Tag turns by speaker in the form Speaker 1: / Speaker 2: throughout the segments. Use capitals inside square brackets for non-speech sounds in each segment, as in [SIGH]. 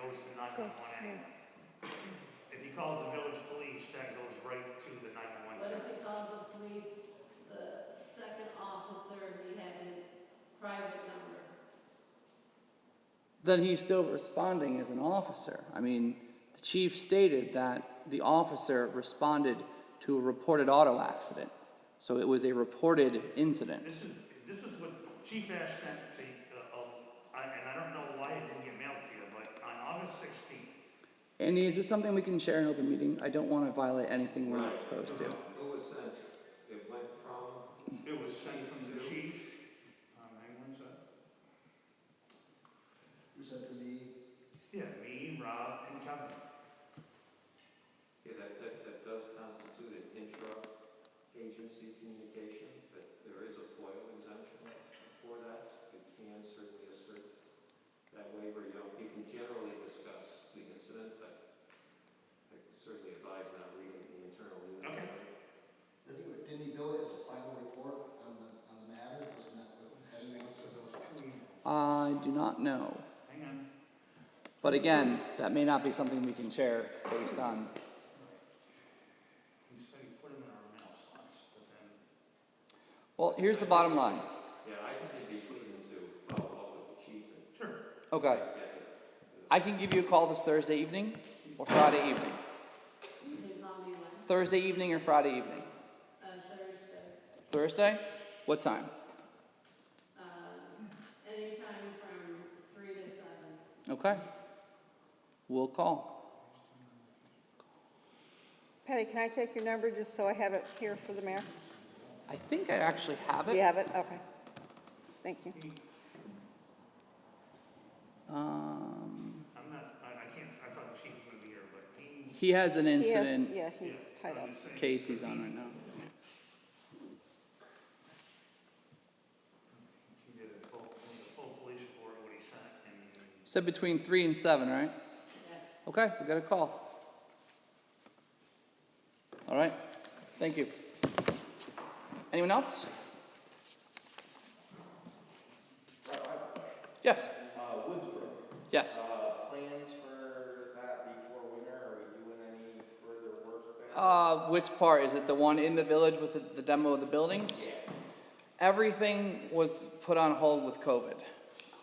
Speaker 1: goes,
Speaker 2: nine one. If he calls the village police, that goes right to the nine one
Speaker 3: What
Speaker 2: one.
Speaker 3: if he called the police, the second officer, he had his private number?
Speaker 4: then he's still responding as an officer. I mean, the chief stated that the officer responded to a reported auto accident. So it was a reported incident.
Speaker 2: This is, this is what Chief Ash sent to, uh, uh, I- and I don't know why it didn't get mailed to you, but on August sixteenth,
Speaker 4: Andy, is this something we can share in open meeting? I don't want to violate anything we're not supposed to.
Speaker 5: Who was sent? It went from?
Speaker 2: it was sent from the chief. Um, hang on a sec.
Speaker 6: You said to me,
Speaker 2: Yeah, me, Rob, and Kevin.
Speaker 5: Yeah, that, that, that does constitute an intra-agency communication, but there is a FOIL exemption for that. You can certainly assert that way where you don't, you can generally discuss the incident, but I certainly advise not reading the internal email.
Speaker 2: Okay.
Speaker 6: didn't didn't he bill it as a final report on the, on the matter? Wasn't that what it was?
Speaker 4: I do not know.
Speaker 2: Hang on.
Speaker 4: But again, that may not be something we can share based on.
Speaker 2: He said he put him in our mail slots, but then.
Speaker 4: Well, here's the bottom line.
Speaker 5: Yeah, I think it'd be prudent to follow up with the chief and
Speaker 2: Sure.
Speaker 4: Okay.
Speaker 5: get it.
Speaker 4: I can give you a call this Thursday evening or Friday evening.
Speaker 3: You can call me when,
Speaker 4: Thursday evening or Friday evening?
Speaker 3: uh, Thursday,
Speaker 4: Thursday? What time?
Speaker 3: um, anytime from three to seven.
Speaker 4: Okay. We'll call.
Speaker 1: Patty, can I take your number just so I have it here for the mayor?
Speaker 4: I think I actually have
Speaker 1: Do you
Speaker 4: it.
Speaker 1: have it? Okay. Thank you.
Speaker 4: Um,
Speaker 2: I'm not, I, I can't, I thought the chief was gonna be here, but he.
Speaker 4: he has an
Speaker 1: He has-
Speaker 4: incident
Speaker 1: Yeah, he's
Speaker 2: Yeah,
Speaker 1: tied
Speaker 2: I'm
Speaker 1: up.
Speaker 2: just saying.
Speaker 4: case he's on right now.
Speaker 2: He did a full, he did a full police report, what he sent, and
Speaker 4: Said between three and seven, right?
Speaker 3: Yes.
Speaker 4: Okay, we got a call. All right, thank you. Anyone else? Yes,
Speaker 7: Uh, Woodsboro,
Speaker 4: yes.
Speaker 7: uh, plans for that before winter, are we doing any further work there?
Speaker 4: Uh, which part? Is it the one in the village with the, the demo of the buildings? Everything was put on hold with COVID.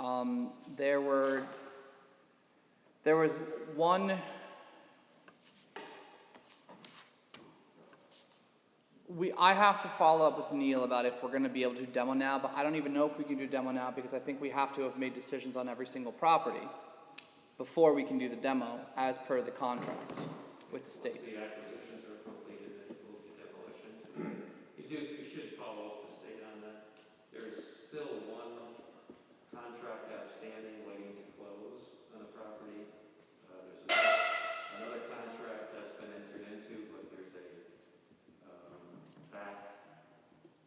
Speaker 4: Um, there were, there was one, we, I have to follow up with Neil about if we're gonna be able to do demo now, but I don't even know if we can do demo now because I think we have to have made decisions on every single property before we can do the demo as per the contract with the state.
Speaker 5: Once the acquisitions are completed, then you move to demolition. [CLEARS THROAT] You do, you should follow up the state on that. There's still one contract outstanding waiting to close on a property. Uh, there's a- another contract that's been entered into, but there's a, um, back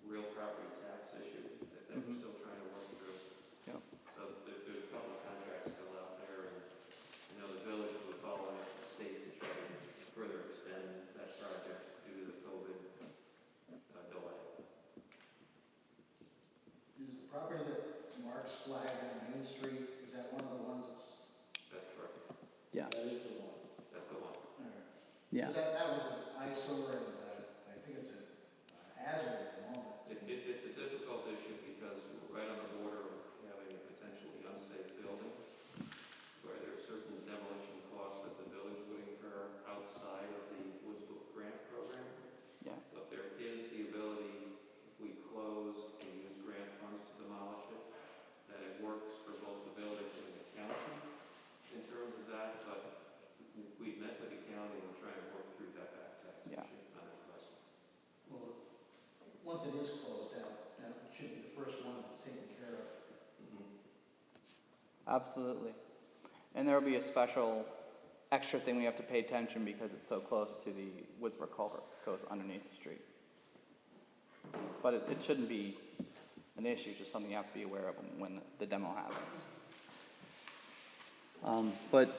Speaker 5: real property tax issue that, that we're still trying to work through.
Speaker 4: Yep.
Speaker 5: So there, there's a couple of contracts still out there, and you know, the village would follow up the state to try to further extend that project due to the COVID uh, delay.
Speaker 6: Is the property that Mark's flag on Main Street, is that one of the ones that's?
Speaker 5: That's correct.
Speaker 4: Yeah,
Speaker 6: That is the one.
Speaker 5: That's the one.
Speaker 6: All right.
Speaker 4: yeah.
Speaker 6: That, that was an eyesore and, uh, I think it's a uh, hazard at the moment.
Speaker 5: It, it, it's a difficult issue because we're right on the border of having a potentially unsafe building where there are certain demolition costs that the village would incur outside of the Woods Book Grant Program.
Speaker 4: Yeah.
Speaker 5: But there is the ability, if we close and use grant funds to demolish it, that it works for both the village and the county in terms of that, but we met with the county, and we're trying to work through that back tax issue
Speaker 4: Yeah.
Speaker 5: on that question.
Speaker 6: Well, once it is closed out, that should be the first one that's taken care of.
Speaker 4: Absolutely. And there'll be a special extra thing we have to pay attention because it's so close to the Woodsburg culvert that goes underneath the street. But it, it shouldn't be an issue, it's just something you have to be aware of when the demo happens. Um, but